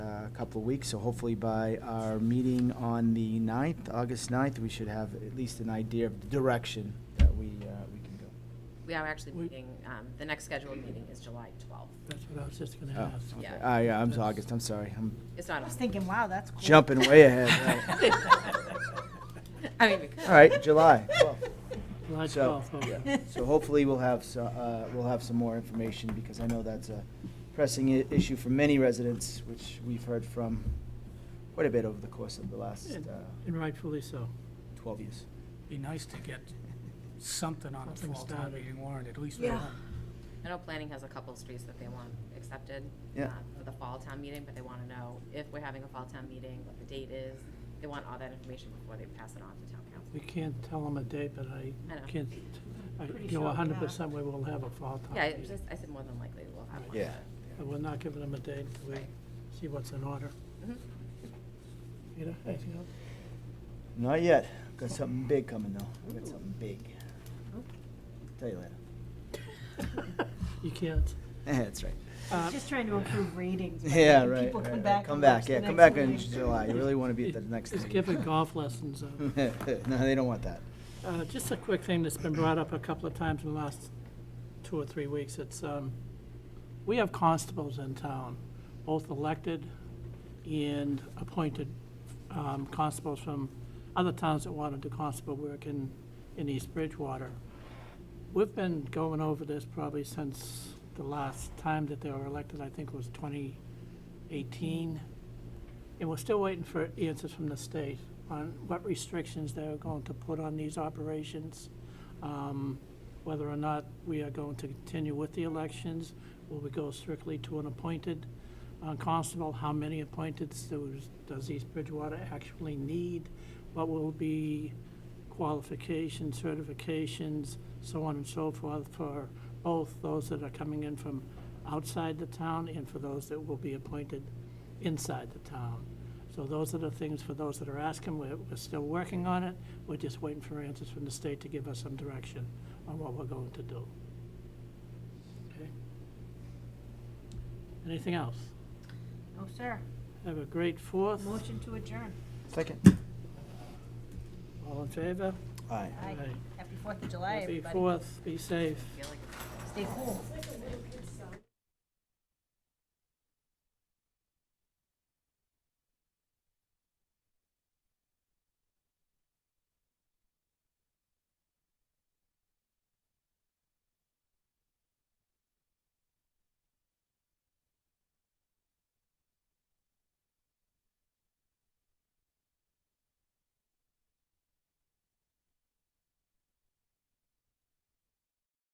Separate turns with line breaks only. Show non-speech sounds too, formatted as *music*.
couple of weeks, so hopefully by our meeting on the 9th, August 9th, we should have at least an idea of the direction that we, uh, we can go.
We are actually
We-
meeting, um, the next scheduled meeting is July 12th.
That's what I was just gonna
Oh,
ask.
okay.
Yeah.
Ah, yeah, I'm, August, I'm sorry, I'm
It's not
I was
on. *laughs*
thinking, wow, that's cool.
jumping way ahead, right.
*laughs*
I mean, we could.
All right, July 12th.
July
So,
12th, okay.
yeah. so hopefully we'll have, so- uh, we'll have some more information, because I know that's a pressing i- issue for many residents, which we've heard from quite a bit over the course of the last
And-
uh,
And rightfully so.
12 years.
Be nice to get something on the
Something
fall town
started.
meeting warrant, at least.
Yeah.
one.
I know planning has a couple of streets that they want accepted
Yeah.
uh, for the fall town meeting, but they want to know if we're having a fall town meeting, what the date is. They want all that information before they pass it on to town council.
We can't tell them a date, but I
I know.
can't, I
Pretty
know
sure,
100% we will have a fall town
Yeah, I
meeting.
just- I said more than likely we'll have one.
Yeah.
But we're not giving them a date until we
Right.
see what's in order.
but- Mhm.
Peter, anything else?
Not yet. Got something big coming though. Got something big. Tell you later.
*laughs* You can't.
*laughs* That's right.
Uh,
Just trying to improve ratings. right?
Yeah,
When
right.
People
right,
come
right.
back.
Come
and
back,
watch the
yeah, come
next
back in
meeting.
July. You really want to be at the
it-
next
It's
meeting.
giving golf lessons. uh,
*laughs* No, they don't want that.
Uh, Just a quick thing that's been brought up a couple of times in the last two or three weeks. It's, um, we have constables in town, both elected and appointed um, constables from other towns that want to do constable work in, in East Bridgewater. We've been going over this probably since the last time that they were elected, I think was 2018. And we're still waiting for answers from the state on what restrictions they're going to put on these operations, um, whether or not we are going to continue with the elections, will we go strictly to an appointed uh, constable, how many appointeds does- does East Bridgewater actually need, what will be qualifications, certifications, so on and so forth for both those that are coming in from outside the town and for those that will be appointed inside the town. So those are the things for those that are asking. We're, we're still working on it. We're just waiting for answers from the state to give us some direction on what we're going to do. Okay. Anything else?
No, Oh, sir.
Have a great fourth.
Motion to adjourn.
Second.
All in favor?
Aye.
Aye.
Aye.
Happy Fourth of July,
Happy
everybody.
fourth. Be safe.
I feel like it's-
Stay cool.